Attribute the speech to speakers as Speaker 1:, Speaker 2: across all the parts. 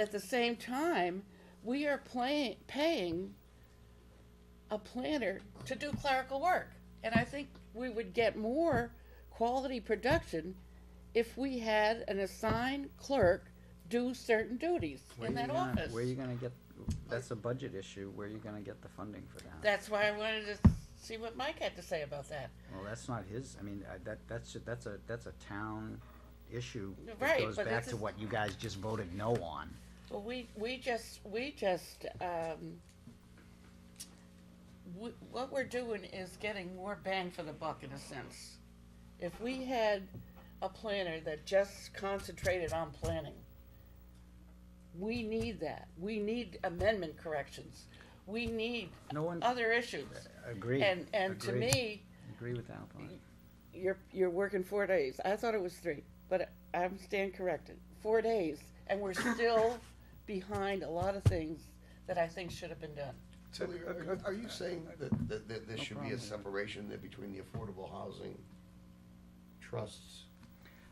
Speaker 1: at the same time, we are playing, paying a planner to do clerical work. And I think we would get more quality production if we had an assigned clerk do certain duties
Speaker 2: Where
Speaker 1: in
Speaker 2: you
Speaker 1: that
Speaker 2: gonna-
Speaker 1: office.
Speaker 2: Where you gonna get, that's a budget issue, where you gonna get the funding for that?
Speaker 1: That's why I wanted to see what Mike had to say about that.
Speaker 2: Well, that's not his, I mean, I- that, that's, a- that's a, that's a town issue. that
Speaker 1: Right,
Speaker 2: Goes
Speaker 1: but
Speaker 2: back
Speaker 1: this
Speaker 2: to
Speaker 1: is-
Speaker 2: what you guys just voted no on.
Speaker 1: Well, we, we just, we just, um, w- what we're doing is getting more bang for the buck in a sense. If we had a planner that just concentrated on planning, we need that. We need amendment corrections. We need
Speaker 2: No one,
Speaker 1: other issues.
Speaker 2: agree.
Speaker 1: And, and to
Speaker 2: agree,
Speaker 1: me,
Speaker 2: Agree with Alpine.
Speaker 1: you're, you're working four days. I thought it was three, but I'm stand corrected. Four days, and we're still behind a lot of things that I think should have been done.
Speaker 3: So are- are you saying that, that, that there should be
Speaker 2: problem.
Speaker 3: a separation there between the affordable housing trusts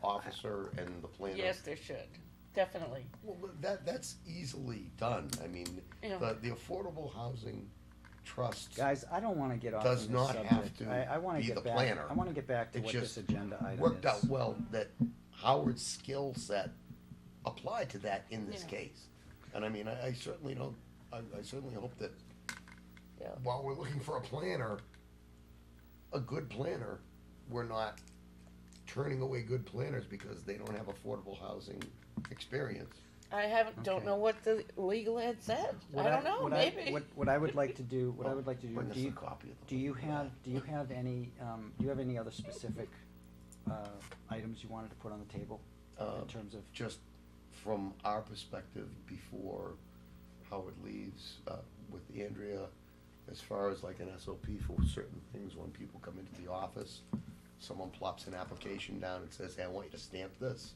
Speaker 3: officer and the planner?
Speaker 1: Yes, there should, definitely.
Speaker 3: Well, but that, that's easily done, I mean,
Speaker 1: Yeah.
Speaker 3: the, the affordable housing trust,
Speaker 2: Guys, I don't wanna get off on
Speaker 3: Does
Speaker 2: this
Speaker 3: not
Speaker 2: subject.
Speaker 3: have to
Speaker 2: I, I wanna
Speaker 3: be
Speaker 2: get
Speaker 3: the
Speaker 2: back,
Speaker 3: planner.
Speaker 2: I wanna get back to
Speaker 3: It
Speaker 2: what this
Speaker 3: just
Speaker 2: agenda item is.
Speaker 3: worked out well that Howard's skill set applied to that in this
Speaker 1: Yeah.
Speaker 3: case. And I mean, I, I certainly don't, I, I certainly hope that
Speaker 1: Yeah.
Speaker 3: while we're looking for a planner, a good planner, we're not turning away good planners because they don't have affordable housing experience.
Speaker 1: I haven't, don't
Speaker 2: Okay.
Speaker 1: know what the legal ad said. I
Speaker 2: What
Speaker 1: don't know,
Speaker 2: what I-
Speaker 1: maybe.
Speaker 2: What, what I would like to do, what I would like to do,
Speaker 3: Bring us
Speaker 2: do
Speaker 3: a
Speaker 2: you,
Speaker 3: copy of the-
Speaker 2: do you have, do you have any, um, do you have any other specific, uh, items you wanted to put on the table?
Speaker 3: Uh,
Speaker 2: In terms of,
Speaker 3: Just from our perspective, before Howard leaves, uh, with Andrea, as far as like an SOP for certain things, when people come into the office, someone plops an application down and says, hey, I want you to stamp this.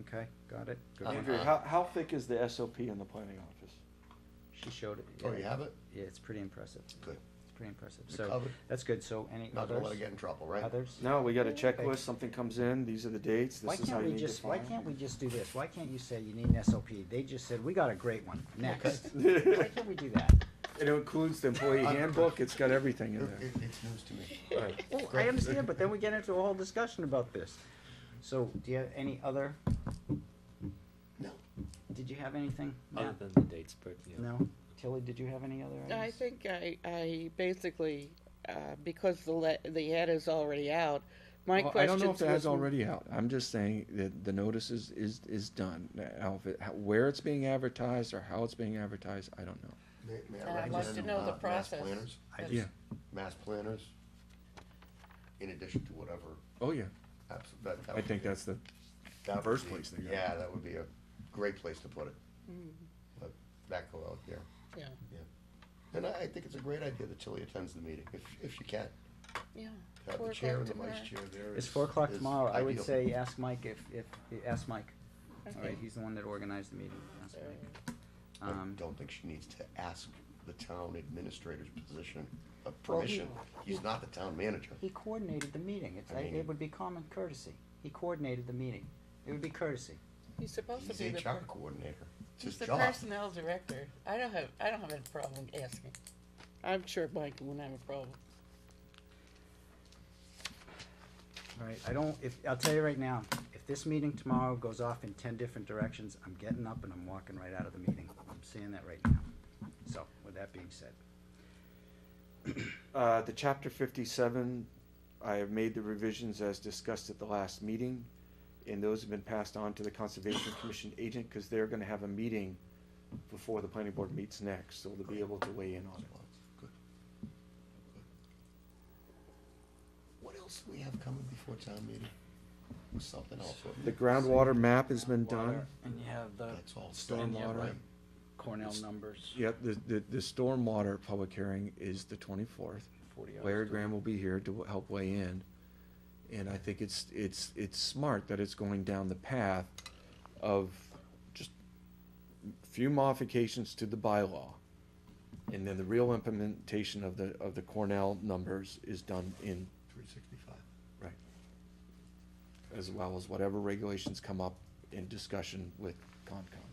Speaker 2: okay, got it, good.
Speaker 3: Uh-huh.
Speaker 4: Andrew, how, how thick is the SOP in the planning office?
Speaker 2: She showed it.
Speaker 3: Oh,
Speaker 2: yeah.
Speaker 3: you have it?
Speaker 2: Yeah, it's pretty impressive.
Speaker 3: Good.
Speaker 2: It's pretty impressive.
Speaker 3: You
Speaker 2: So,
Speaker 3: covered?
Speaker 2: that's good. So any
Speaker 3: Not gonna let her
Speaker 2: others?
Speaker 3: get in trouble, right?
Speaker 2: Others?
Speaker 4: No, we got a checklist, something comes in, these are the dates,
Speaker 2: Why
Speaker 4: this is how
Speaker 2: can't
Speaker 4: you
Speaker 2: we
Speaker 4: need to
Speaker 2: just, why
Speaker 4: file.
Speaker 2: can't we just do this? Why can't you say you need an SOP? They just said, we got a great one, next. Why can't we do that?
Speaker 4: It includes the employee handbook, it's got everything
Speaker 3: It,
Speaker 4: in there.
Speaker 3: it- it's news to me.
Speaker 2: Well, I understand, but then we get into a whole discussion about this. So, do you have any other,
Speaker 3: No.
Speaker 2: did you have anything?
Speaker 3: Um,
Speaker 5: Other
Speaker 2: Matt?
Speaker 5: than the dates, but yeah.
Speaker 2: No? Tilly, did you have any other items?
Speaker 1: I think I, I basically, uh, because the le- the ad is already out, my
Speaker 4: Well, I
Speaker 1: question
Speaker 4: don't know if that is already out, I'm just saying that the notice is, is, is done. Now, if it- how- where it's being advertised or how it's being advertised, I don't know.
Speaker 3: May- may I
Speaker 1: Uh, I'd like
Speaker 3: recommend,
Speaker 1: to know the
Speaker 3: uh, mass
Speaker 1: process.
Speaker 3: planners?
Speaker 2: I
Speaker 1: Yeah.
Speaker 2: just,
Speaker 3: Mass planners, in addition to whatever,
Speaker 4: Oh, yeah,
Speaker 3: abso- that, that
Speaker 4: I
Speaker 3: would
Speaker 4: think
Speaker 3: be-
Speaker 4: that's the,
Speaker 3: that would
Speaker 4: first
Speaker 3: be-
Speaker 4: place they go.
Speaker 3: Yeah, that would be a great place to put it.
Speaker 1: Mm-hmm.
Speaker 3: Let that go out there,
Speaker 1: Yeah,
Speaker 3: yeah. And I, I think it's a great idea that Tilly attends the meeting, if, if you can.
Speaker 1: yeah.
Speaker 3: Have
Speaker 1: Four
Speaker 3: the chair and
Speaker 1: o'clock
Speaker 3: the
Speaker 1: tomorrow.
Speaker 3: vice chair there.
Speaker 2: It's
Speaker 3: is-
Speaker 2: four o'clock
Speaker 3: is
Speaker 2: tomorrow, I would
Speaker 3: ideal.
Speaker 2: say, ask Mike if, if, ask Mike. All right,
Speaker 1: Okay.
Speaker 2: he's the one that organized the meeting, ask Mike.
Speaker 3: I
Speaker 2: Um,
Speaker 3: don't think she needs to ask the town administrator's position, uh, permission. He's not the town manager.
Speaker 2: he coordinated the meeting, it's,
Speaker 3: I mean-
Speaker 2: it would be common courtesy, he coordinated the meeting, it would be courtesy.
Speaker 1: He's supposed to
Speaker 3: He's
Speaker 1: be the
Speaker 3: HR coordinator. It's his
Speaker 1: He's the
Speaker 3: job.
Speaker 1: personnel director. I don't have, I don't have any problem asking. I'm sure Mike wouldn't have a problem.
Speaker 2: All right, I don't, if, I'll tell you right now, if this meeting tomorrow goes off in ten different directions, I'm getting up and I'm walking right out of the meeting, I'm saying that right now. So, with that being said,
Speaker 4: Uh, the chapter fifty-seven, I have made the revisions as discussed at the last meeting, and those have been passed on to the Conservation Commission agent, because they're gonna have a meeting before the planning board meets next, so they'll be able to weigh in on it.
Speaker 3: Good. What else do we have coming before town meeting? Something else. wasn't
Speaker 4: The
Speaker 3: there?
Speaker 4: groundwater map has been done,
Speaker 2: water, and you have the
Speaker 3: That's all.
Speaker 2: uh, Stormwater.
Speaker 3: Right.
Speaker 2: Cornell numbers,
Speaker 4: yep, the, the, the stormwater public hearing is the twenty-fourth.
Speaker 2: forty hours.
Speaker 4: Larry Graham will be here to help weigh in. And I think it's, it's, it's smart that it's going down the path of just few modifications to the bylaw. And then the real implementation of the, of the Cornell numbers is done in,
Speaker 3: Three sixty-five.
Speaker 4: right. As well as whatever regulations come up in discussion with Concom.